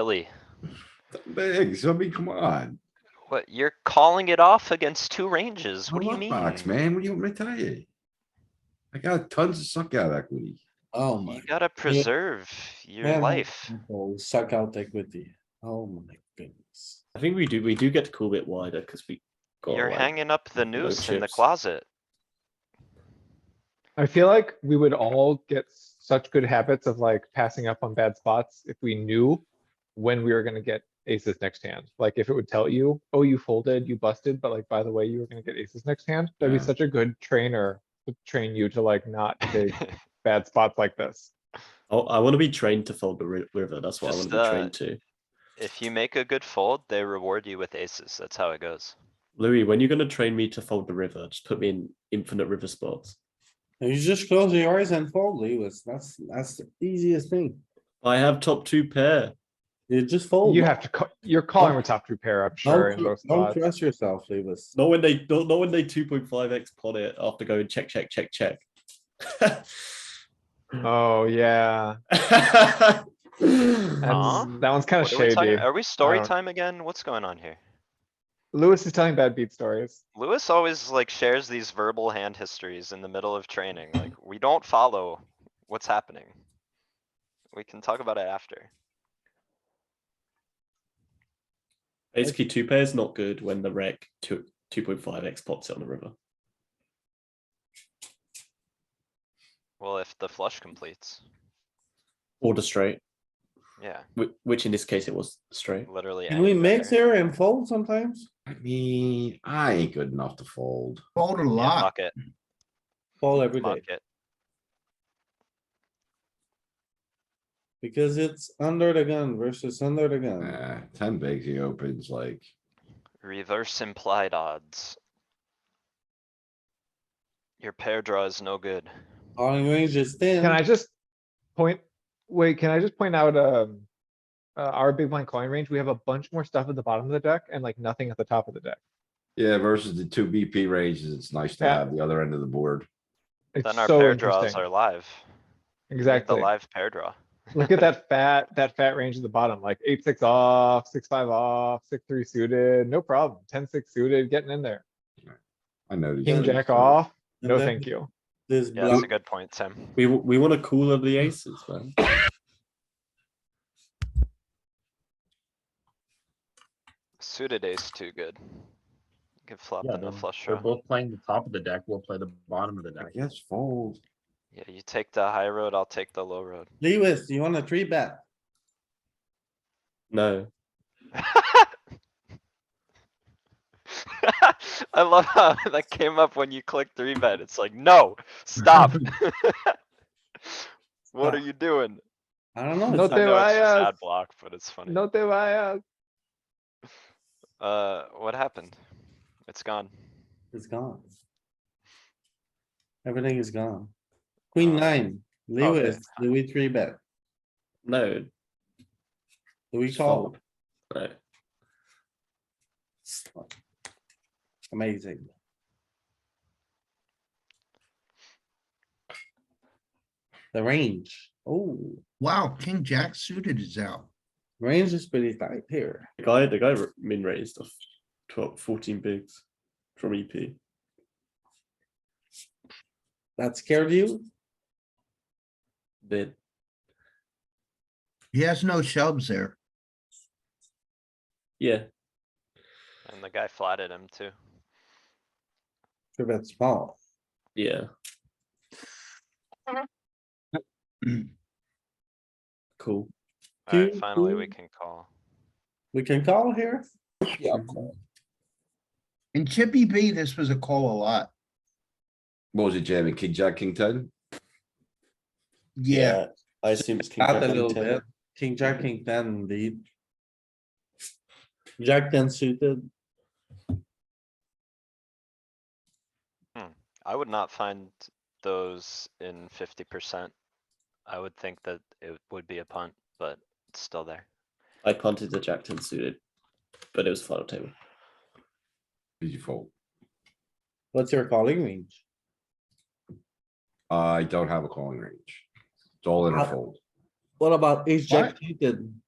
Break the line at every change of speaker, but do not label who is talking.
Billy,
Big, so I mean, come on.
what, you're calling it off against two ranges? What do you
I'm
mean?
up Box, man, what do you want me to tell you? I got tons of suck out equity.
Oh my,
You gotta preserve your
Yeah.
life.
people suck out equity. Oh my goodness.
I think we do. We do get to cool bit wider because we. Got
You're
like-
hanging up the noose in the
chips.
closet.
I feel like we would all get such good habits of like passing up on bad spots if we knew when we were gonna get aces next hand. Like if it would tell you, oh, you folded, you busted, but like, by the way, you were gonna get aces next hand, that'd
Yeah.
be such a good trainer to train you to like not take bad spots like this.
oh, I, want to be trained to fold the ri- river. That's what
Just,
I want to
uh,
be trained to.
If you make a good fold, they reward you with aces. That's how it goes.
Louis, when you're going to train me to fold the river, just put me in infinite river spots.
You just close your eyes and fold, Lewis. That's, that's the easiest thing.
I have top two pair.
You just
Oh,
fold.
You have to, ca- you're calling with top two pair, I'm sure,
Don't
in both
tr- Don't
spots.
trust yourself, Lewis.
Not when they not, not when they 2.5x pot it after going check check check check.
Oh, yeah. That's-
Huh?
That one's kinda
What are we talking-
shady.
Are we story
don't-
time again? What's going on here?
Lewis is telling bad beat stories.
Lewis always like shares these verbal hand histories in the middle of training. Like, we don't follow what's happening. We can talk about it after.
Basically, two pairs not good when the rec two two point five x pots it on the river.
Well, if the flush completes,
Or the straight,
yeah,
whi- which in this case it was straight.
literally.
Can we
any
mix
pair.
here and fold sometimes?
I mean, I ain't good enough to fold.
Fold a
Yeah,
lot.
muck it,
Fold every
muck
day
it.
because it's under the gun versus under the gun.
Nah, ten bigs, he opens like,
Reverse implied odds. Your pair draw is no good.
Calling range is thin.
Can I just point, wait, can I just point out, um, uh, our big blind calling range, we have a bunch more stuff at the bottom of the deck and like nothing at the top of the deck.
yeah, versus the two BP ranges, it's nice to
Yeah.
have the other end of the board.
It's
Then our
so
pair draws
interesting.
are live. We have The
Exactly.
live pair draw.
Look at that fat, that fat range at the bottom, like eight, six off, six, five off, six, three suited, no problem. Ten, six suited, getting in there.
I know. these
King,
things.
jack off,
And
no
then
thank you.
This
Yeah, that's
block,
a good point, Tim.
We w- we want to cooler the aces, man.
Suited ace too good. Give flop
Yeah,
in the
then
flush
We're
draw.
both playing the top of the deck, we'll play the bottom of the
I
deck.
guess fold.
Yeah, you take the high road, I'll take the low road.
Lewis, you want a three bet?
No,
I love how that came up when you click three bet. It's like, no, stop. What are
Stop.
you doing?
I don't know.
No
it's
I
te
know it's just ad
vayas.
block, but it's funny.
No te vayas.
Uh, what happened? It's gone.
It's gone. Everything is gone. Queen
Oh.
nine, Lewis, do we three bet?
no,
Do we
Just
call?
fold. no.
Amazing. The range, oh,
Wow, king jack suited is out.
range is pretty tight here.
The guy, the guy r- min raised off 12, 14 bigs from E EP.
That scared you?
Then
He has no shoves there.
yeah,
And the guy flatted him too.
Three bet small.
yeah. cool.
Alright,
Two,
finally we
two.
can call.
We can call here?
Yeah.
In Chippy B, this was a call a lot.
What was it jamming? King, jack, king ten?
Yeah,
I assume it's king
Out
jack
a
and
little
ten.
bit, king,
Mm-hmm.
jack, king ten indeed. Jack ten suited,
I would not find those in fifty percent. I would think that it would be a punt, but it's still there.
I punted the jack ten suited, but it was final table.
Did you fold?
what's your calling range?
I don't have a calling range. It's all in or
Uh,
fold.
What about ace jack
What?
suited?